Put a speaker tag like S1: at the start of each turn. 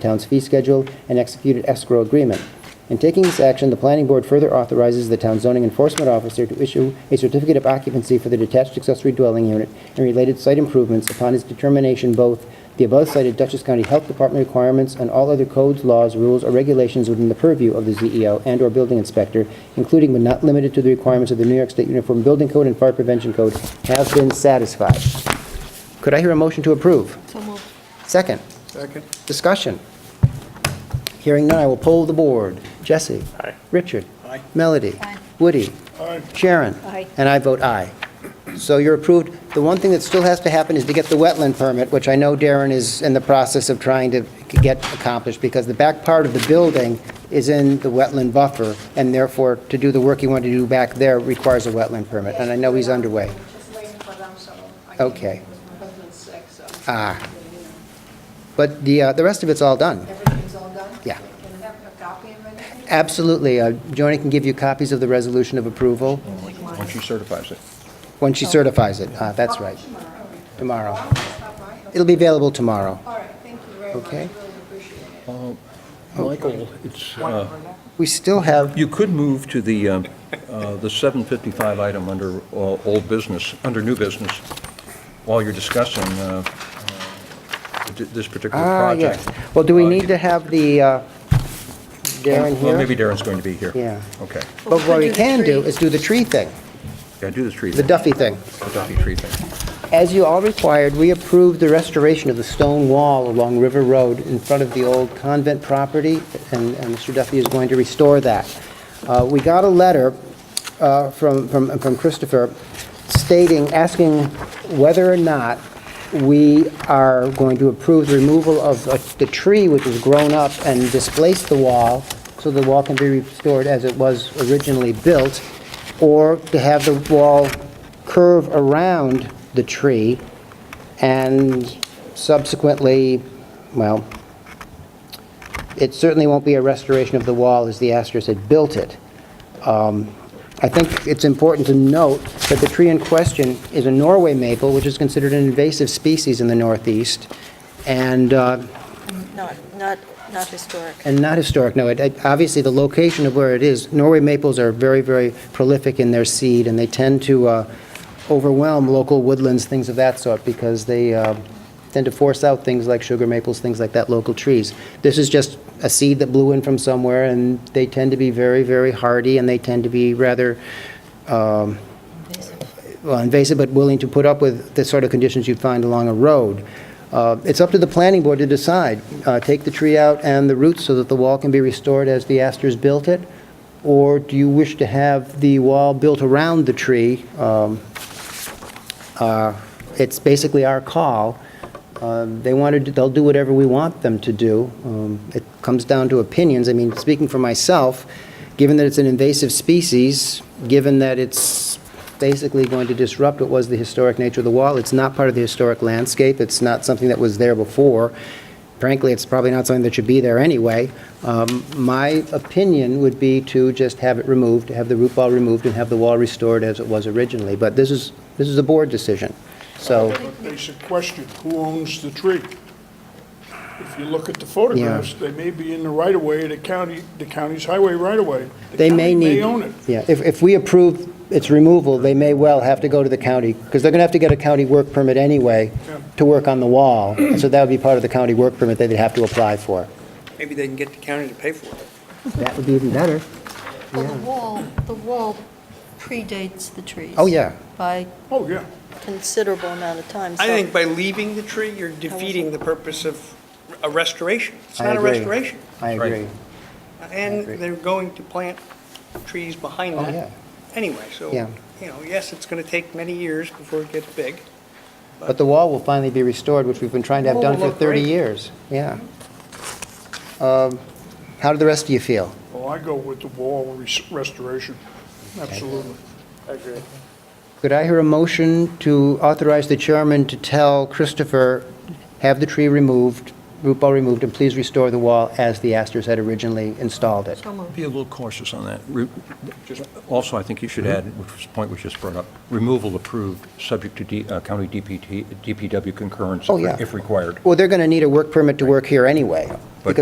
S1: town's fee schedule and executed escrow agreement. In taking this action, the planning board further authorizes the town zoning enforcement officer to issue a certificate of occupancy for the detached accessory dwelling unit and related site improvements upon his determination both the above cited Dutchess County Health Department requirements and all other codes, laws, rules, or regulations within the purview of the E ZEO and/or building inspector, including but not limited to the requirements of the New York State Uniform Building Code and Fire Prevention Code, have been satisfied. Could I hear a motion to approve?
S2: So moved.
S1: Second?
S3: Second.
S1: Discussion. Hearing none, I will poll the board. Jesse?
S3: Aye.
S1: Richard?
S3: Aye.
S1: Melody?
S2: Aye.
S1: Woody?
S3: Aye.
S1: Sharon?
S2: Aye.
S1: And I vote aye. So you're approved. The one thing that still has to happen is to get the wetland permit, which I know Darren is in the process of trying to get accomplished, because the back part of the building is in the wetland buffer, and therefore, to do the work you want to do back there requires a wetland permit, and I know he's underway.
S2: Just waiting for them, so I can-
S1: Okay.
S2: My husband's sick, so.
S1: Ah.
S2: you know,
S1: But the, uh, the rest of it's all done.
S2: Everything's all done?
S1: Yeah.
S2: Can I have a copy of anything?
S1: Absolutely. Uh, Joni can give you copies of the resolution of approval.
S3: Once she certifies it.
S1: When she certifies it, Ah, that's right, tomorrow.
S2: Tomorrow. Well, I'm gonna stop by.
S1: It'll be available tomorrow.
S2: All right, thank you very much.
S1: Okay.
S2: Really appreciate it.
S3: Michael, it's, uh,
S1: We still have,
S4: You could move to the, um, uh, the 755 item under uh, old business, under new business, while you're discussing uh, uh, th- this particular
S1: ah,
S4: project.
S1: yes. Well, do we
S4: Uh,
S1: need to have the uh, Darren
S4: Well, maybe
S1: here?
S4: Darren's going to be here.
S1: Yeah.
S4: Okay.
S1: But what we can do is do the tree thing,
S4: Yeah, do the tree
S1: the
S4: thing.
S1: Duffy thing.
S4: The Duffy tree thing.
S1: As you all required, we approved the restoration of the stone wall along River Road in front of the old convent property, and and Mr. Duffy is going to restore that. Uh, We got a letter uh, from from from Christopher stating, asking whether or not we are going to approve the removal of uh, the tree which has grown up and displaced the wall, so the wall can be restored as it was originally built, or to have the wall curve around the tree and subsequently, well, it certainly won't be a restoration of the wall as the Astros had built it. Um, I think it's important to note that the tree in question is a Norway maple, which is considered an invasive species in the Northeast, and uh,
S5: Not, not, not historic.
S1: and not historic, no. It- it- Obviously, the location of where it is, Norway maples are very, very prolific in their seed, and they tend to uh, overwhelm local woodlands, things of that sort, because they uh, tend to force out things like sugar maples, things like that, local trees. This is just a seed that blew in from somewhere, and they tend to be very, very hardy, and they tend to be rather um, well, uh, invasive, but willing to put up with the sort of conditions you'd find along a road. Uh, It's up to the planning board to decide, Uh, take the tree out and the roots so that the wall can be restored as the Astors built it, or do you wish to have the wall built around the tree? Um, uh, It's basically our call. Uh, They want to, do- they'll do whatever we want them to do. Um, It comes down to opinions. I mean, speaking for myself, given that it's an invasive species, given that it's basically going to disrupt what was the historic nature of the wall, it's not part of the historic landscape, it's not something that was there before, frankly, it's probably not something that should be there anyway. Um, My opinion would be to just have it removed, have the root ball removed, and have the wall restored as it was originally, but this is, this is a board decision, so...
S3: Basic question, who owns the tree? If you look at the photographs, they may be in the right-of-way, the county, the county's highway right-of-way. The
S1: They may
S3: county
S1: need...
S3: own it.
S1: Yeah, if, if we approve its removal, they may well have to go to the county, because they're going to have to get a county work permit anyway
S3: Yeah.
S1: to work on the wall, and so that would be part of the county work permit that they'd have to apply for.
S6: Maybe they can get the county to pay for it.
S1: That would be even better.
S2: Well, the wall, the wall predates the trees.
S1: Oh, yeah.
S5: By
S3: Oh, yeah.
S5: considerable amount of time.
S6: I
S5: so-
S6: think by leaving the tree, you're defeating the purpose of a restoration. It's
S1: I
S6: not a
S1: agree.
S6: restoration.
S1: I
S4: Right.
S1: agree.
S6: And
S1: agree.
S6: they're going to plant trees behind
S1: Oh, yeah.
S6: that anyway. So,
S1: Yeah.
S6: you know, yes, it's going to take many years before it gets big.
S1: But the wall will finally be restored, which we've been trying to have done
S6: Wall
S1: for
S6: will look
S1: 30
S6: great.
S1: years. Yeah. Um, How do the rest of you feel?
S3: Well, I go with the wall res- restoration, absolutely.
S6: I agree.
S1: Could I hear a motion to authorize the chairman to tell Christopher, have the tree removed, root ball removed, and please restore the wall as the Astors had originally installed it.
S2: So moved.
S4: Be a little cautious on that. Re- just- Hmm? Also, I think you should add, which was the point was just brought up, removal approved, subject to D- uh, county DPT, DPW concurrence
S1: Oh, yeah.
S4: if required.
S1: Well, they're going to need a work permit to work here anyway,
S4: But-
S1: because